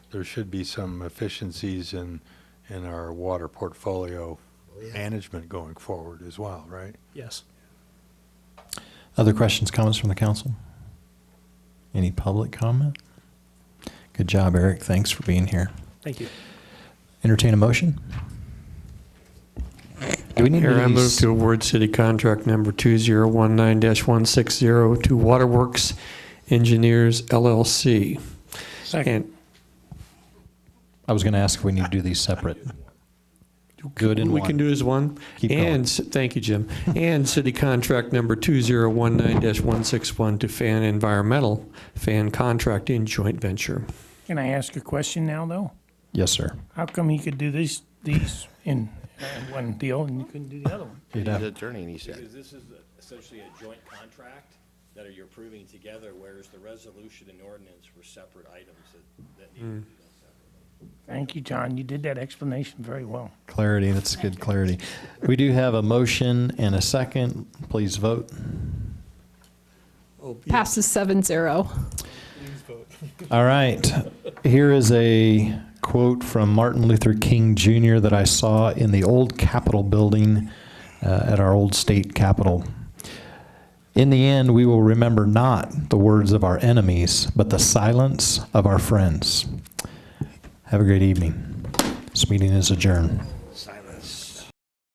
there should be some efficiencies in, in our water portfolio management going forward as well, right? Yes. Other questions, comments from the council? Any public comment? Good job, Eric. Thanks for being here. Thank you. Entertain a motion? Do we need Mayor, I to move s- to award city contract number 2019-160 to Waterworks Engineers LLC. And I was going to ask if we need to do these separate. Good and we one. can do as one. Keep going. And, ci- thank you, Jim. And city contract number 2019-161 to Fan Environmental, Fan Contracting Joint Venture. Can I ask a question now, though? Yes, sir. How come he could do these, these in uh, one deal and you couldn't do the other one? You'd He's have- an attorney, and he said, Because this is essentially a joint contract that you're approving together, whereas the resolution and ordinance were separate items that, that needed to be done separately. Thank you, John. You did that explanation very well. Clarity, that's good clarity. We do have a motion and a second. Please vote. Passes seven zero. All right. Here is a quote from Martin Luther King Jr. that I saw in the old Capitol building uh, at our old state capitol. In the end, we will remember not the words of our enemies, but the silence of our friends. Have a great evening. This meeting is adjourned.